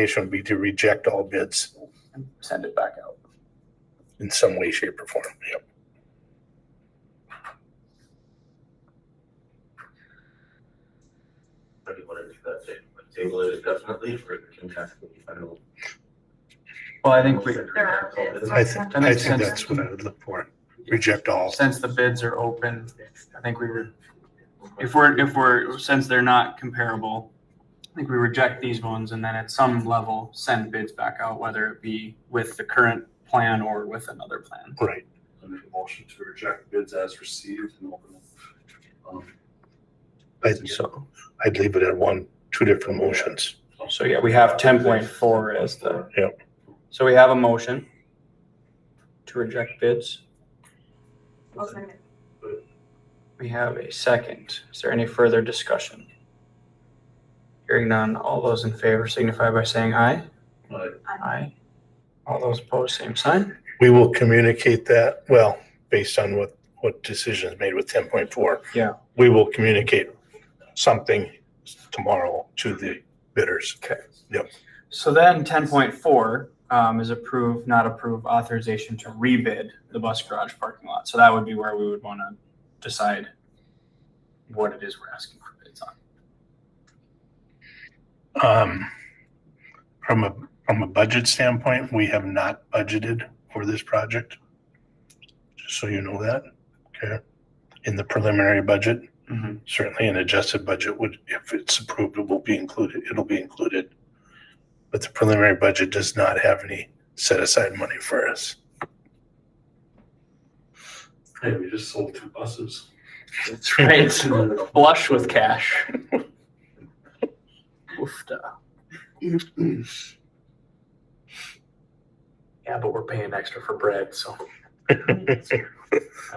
recommendation would be to reject all bids and send it back out. in some way, shape, or form. Yep. How do you want to do that? Table- Table it indefinitely for the contested final. Well, I think we, There are bids. I think, That I makes think sense. that's what I would look for. Reject all. since the bids are open, I think we would, if we're, if we're, since they're not comparable, I think we reject these ones and then at some level send bids back out, whether it be with the current plan or with another plan. Right. I make a motion to reject bids as received and open them. Um, I'd, So, I'd leave it at one, two different motions. so yeah, we have ten point four as the. Yep. So we have a motion to reject bids. I'll second. We have a second. Is there any further discussion? Hearing none, all those in favor signify by saying aye. I Aye. All those opposed, same sign. We will communicate that, well, based on what, what decisions made with ten point four. Yeah. We will communicate something tomorrow to the bidders. So then ten point four um, is approve, not approve authorization to rebid the bus garage parking lot. So that would be where we would want to decide what it is we're asking for bids on. Um, from a, from a budget standpoint, we have not budgeted for this project. Just so you know that, okay? In the preliminary budget, certainly an adjusted budget would, if it's approved, it will be included, it'll be included. But the preliminary budget does not have any set aside money for us. Hey, we just sold two buses. That's right. Flush with cash. Oofta. Yeah, but we're paying extra for bread, so that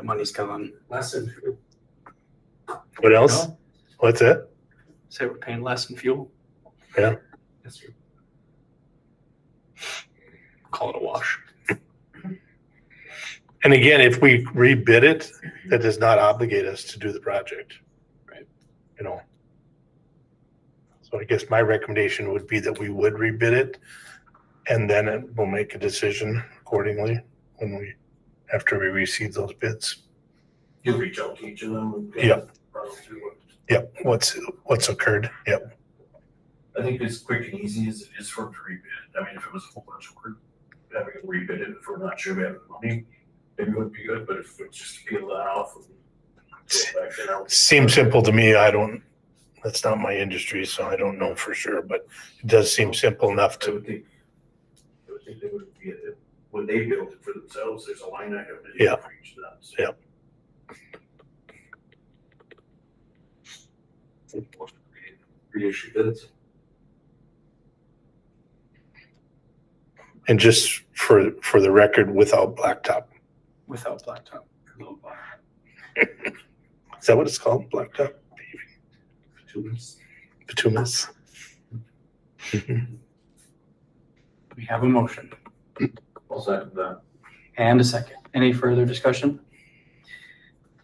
money's coming. Less than two. What else? What's that? Say we're paying less in fuel. Yeah. That's true. Call it a wash. And again, if we rebid it, that does not obligate us to do the project. Right. You know. So I guess my recommendation would be that we would rebid it and then it- we'll make a decision accordingly when we, after we receive those bids. You reach out to each of them. and go Yeah. run through what- Yep, what's, what's occurred, yep. I think it's quick and easy as it is for them to rebid. I mean, if it was a whole bunch of work, having to rebid it if we're not sure we have the money, maybe it would be good, but if we just peel that off and go back and out. Seems simple to me, I don't, that's not my industry, so I don't know for sure, but it does seem simple enough I to would think, I would think they would be, when they build it for themselves, there's a line item. that Yeah. you can reach that. So Yeah. Reissue bids. And just for, for the record, without blacktop. Without blacktop. Is that what it's called? Blacktop? Two months. Bituminous? We have a motion I'll second that. and a second. Any further discussion?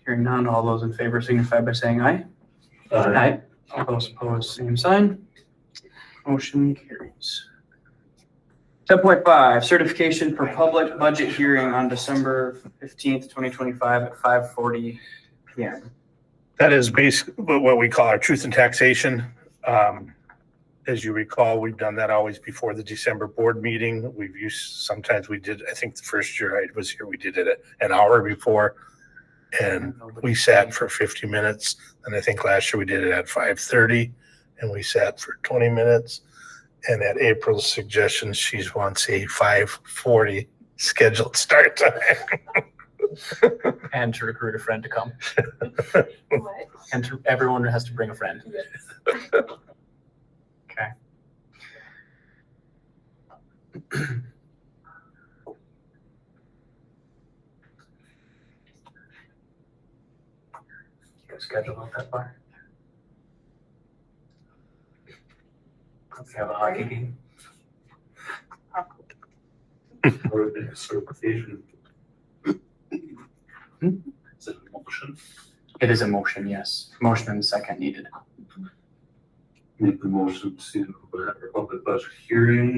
Hearing none, all those in favor signify by saying aye. Uh, Aye. All those opposed, same sign. Motion carries. Ten point five, certification for public budget hearing on December fifteenth, twenty twenty-five at five forty PM. That is basically what we call our truth in taxation. Um, As you recall, we've done that always before the December board meeting. We've used, sometimes we did, I think the first year I was here, we did it an hour before. And we sat for fifty minutes, and I think last year we did it at five thirty, and we sat for twenty minutes. And at April's suggestion, she wants a five forty scheduled start time. And to recruit a friend to come. What? And to, everyone has to bring a friend. Okay. Your schedule not that far? Let's have a hockey game. Or the certification. Hmm? Is it a motion? It is a motion, yes. Motion and second needed. make the motion to, uh, public budget hearing